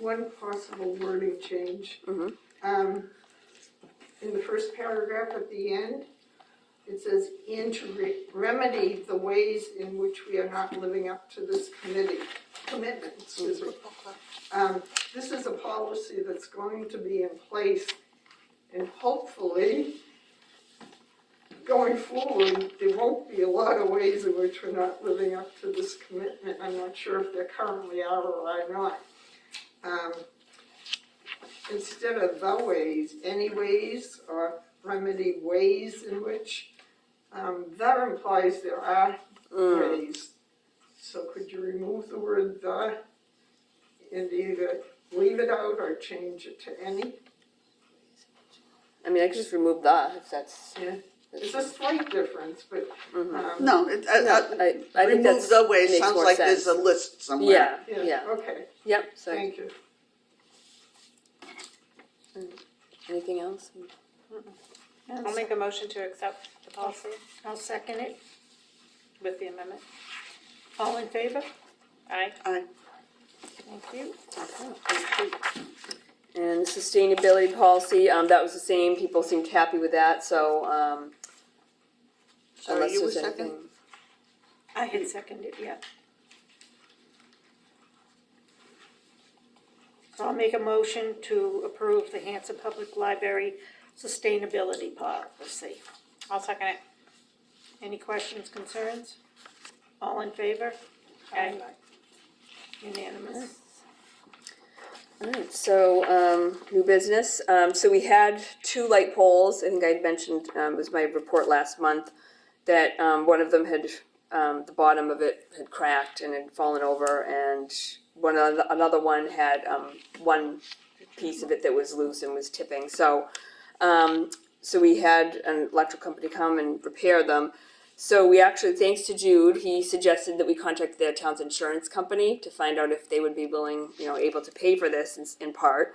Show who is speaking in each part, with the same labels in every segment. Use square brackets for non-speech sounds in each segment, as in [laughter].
Speaker 1: one possible wording change.
Speaker 2: Mhm.
Speaker 1: Um, in the first paragraph at the end, it says, "And to re- remedy the ways in which we are not living up to this committee, commitment," excuse me. Um, this is a policy that's going to be in place and hopefully, going forward, there won't be a lot of ways in which we're not living up to this commitment. I'm not sure if there currently are or are not. Um, Instead of the ways, any ways, or remedy ways in which, um, that implies there are ways. So could you remove the word the and either leave it out or change it to any?
Speaker 2: I mean, I could just remove the, if that's.
Speaker 1: Yeah. It's a slight difference, but, um,
Speaker 3: No, it, I,
Speaker 2: I,
Speaker 3: I,
Speaker 2: I think
Speaker 3: remove
Speaker 2: that's.
Speaker 3: the way,
Speaker 2: makes
Speaker 3: sounds
Speaker 2: more
Speaker 3: like there's a
Speaker 2: sense.
Speaker 3: list somewhere.
Speaker 2: Yeah,
Speaker 1: yeah,
Speaker 2: yeah,
Speaker 1: okay,
Speaker 2: yep, so,
Speaker 1: thank you.
Speaker 2: anything else?
Speaker 4: I'll make a motion to accept the policy
Speaker 5: I'll second it.
Speaker 4: with the amendment.
Speaker 5: All in favor?
Speaker 4: Aye.
Speaker 3: I,
Speaker 5: Thank you.
Speaker 2: And the sustainability policy, um, that was the same, people seemed happy with that, so, um,
Speaker 3: sorry,
Speaker 2: unless
Speaker 3: you were
Speaker 2: there's
Speaker 3: second?
Speaker 2: anything.
Speaker 5: I had seconded, yeah. I'll make a motion to approve the Hanson Public Library Sustainability Policy.
Speaker 4: I'll second it.
Speaker 5: Any questions, concerns? All in favor?
Speaker 4: Aye.
Speaker 5: Unanimous.
Speaker 2: Alright, so, um, new business, um, so we had two light poles, I think I had mentioned, um, it was my report last month, that, um, one of them had, um, the bottom of it had cracked and had fallen over, and one, other- another one had, um, one piece of it that was loose and was tipping, so, um, so we had an electric company come and repair them. So we actually, thanks to Jude, he suggested that we contact the town's insurance company to find out if they would be willing, you know, able to pay for this in, in part.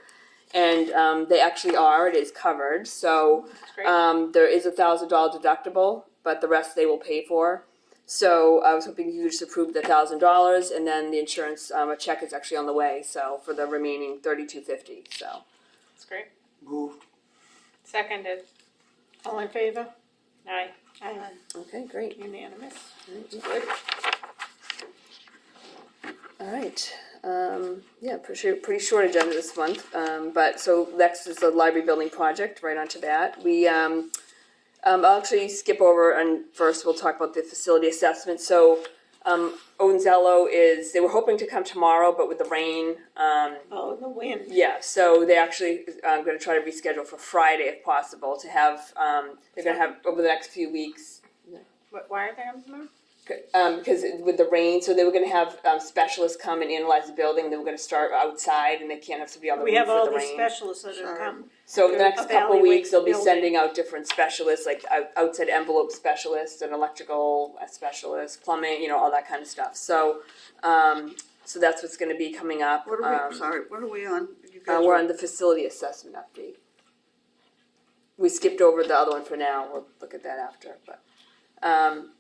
Speaker 2: And um, they actually are, it is covered, so
Speaker 4: great.
Speaker 5: Uh,
Speaker 2: um, there is a thousand dollar deductible, but the rest they will pay for. So I was hoping you could just approve the thousand dollars and then the insurance, um, a check is actually on the way, so for the remaining thirty-two fifty, so.
Speaker 4: That's great.
Speaker 3: Moved.
Speaker 4: Seconded.
Speaker 5: All in favor?
Speaker 4: Aye.
Speaker 5: Aye.
Speaker 2: Okay, great.
Speaker 5: Unanimous.
Speaker 2: All right, um, yeah, pretty, sure- pretty short agenda this month, um, but so next is the library building project, right onto that. We, um, um, I'll actually skip over and first we'll talk about the facility assessment. So, um, Onzello is, they were hoping to come tomorrow, but with the rain, um,
Speaker 5: Oh, the wind.
Speaker 2: yeah, so they actually, I'm gonna try to reschedule for Friday if possible to have, um, they're gonna have, over the next few weeks,
Speaker 4: Wh- Why are they on tomorrow?
Speaker 2: um, because with the rain, so they were gonna have, um, specialists come and analyze the building, they were gonna start outside and they can't have somebody on the
Speaker 5: We
Speaker 2: roof
Speaker 5: have all
Speaker 2: with the
Speaker 5: these
Speaker 2: rain.
Speaker 5: specialists that
Speaker 3: Sure.
Speaker 5: have come.
Speaker 2: So in the
Speaker 5: they're
Speaker 2: next couple
Speaker 5: evaluate
Speaker 2: weeks, they'll be
Speaker 5: building.
Speaker 2: sending out different specialists, like out- outside envelope specialists, an electrical uh, specialist, plumbing, you know, all that kind of stuff, so, um, so that's what's gonna be coming up.
Speaker 3: What are
Speaker 2: um,
Speaker 3: we, sorry, what are we on? You
Speaker 2: uh,
Speaker 3: guys
Speaker 2: we're
Speaker 3: were-
Speaker 2: on the facility assessment update. We skipped over the other one for now, we'll look at that after, but, um,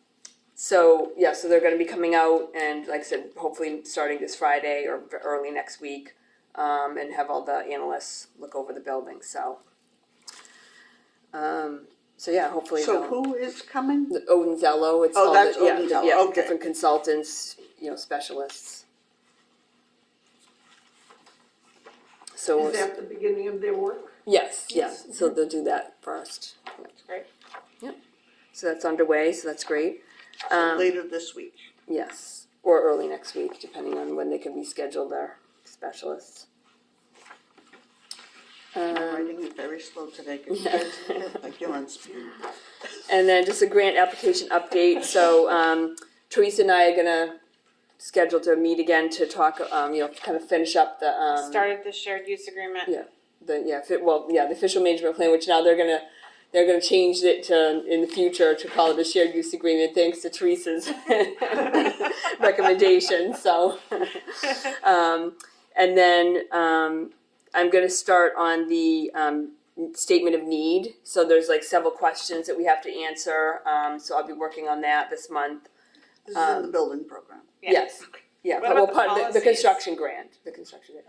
Speaker 2: so, yeah, so they're gonna be coming out and, like I said, hopefully starting this Friday or v- early next week. Um, and have all the analysts look over the building, so. Um, so yeah, hopefully
Speaker 3: So
Speaker 2: they'll-
Speaker 3: who is coming?
Speaker 2: the Odin Zello, it's
Speaker 3: Oh,
Speaker 2: all
Speaker 3: that's
Speaker 2: the, yeah,
Speaker 3: Odin
Speaker 2: the-
Speaker 3: Zello,
Speaker 2: yeah,
Speaker 3: okay.
Speaker 2: different consultants, you know, specialists. So we'll
Speaker 1: Is that the beginning of their work?
Speaker 2: Yes, yes, so they'll do that first.
Speaker 4: That's great.
Speaker 2: So that's underway, so that's great. Um,
Speaker 3: Later this week.
Speaker 2: yes, or early next week, depending on when they can reschedule their specialists. Uh,
Speaker 3: I'm writing it very slow
Speaker 2: [laughs]
Speaker 3: today, 'cause you guys, look like you're on speed.
Speaker 2: And then just a grant application update, so, um, Teresa and I are gonna schedule to meet again to talk, um, you know, kind of finish up the, um.
Speaker 4: Started the shared use agreement.
Speaker 2: Yeah, the, yeah, fi- well, yeah, the official management plan, which now they're gonna, they're gonna change it to, in the future, to call it a shared use agreement, thanks to Teresa's [laughs] recommendation, so. Um, and then, um, I'm gonna start on the, um, statement of need, so there's like several questions that we have to answer, um, so I'll be working on that this month. Um,
Speaker 3: This is in the building program.
Speaker 4: Yeah.
Speaker 2: Yes, yeah,
Speaker 4: What
Speaker 2: well,
Speaker 4: about the
Speaker 2: part, the, the
Speaker 4: policies?
Speaker 2: construction grant, the construction grant.